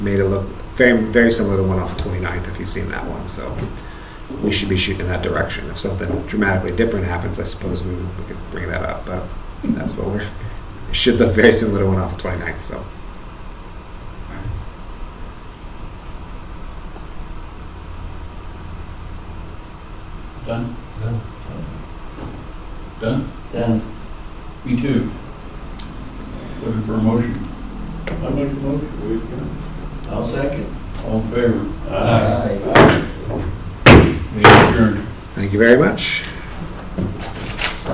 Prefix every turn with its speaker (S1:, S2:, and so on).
S1: made it look very, very similar to the one off of 29th, if you've seen that one, so we should be shooting in that direction. If something dramatically different happens, I suppose we, we could bring that up, but that's what we're, it should look very similar to one off of 29th, so.
S2: Done?
S3: Done.
S2: Done?
S4: Done.
S2: Me too. Looking for a motion.
S5: I make a motion, we adjourn.
S4: I'll second.
S2: All in favor?
S4: Aye.
S2: We adjourn.
S1: Thank you very much.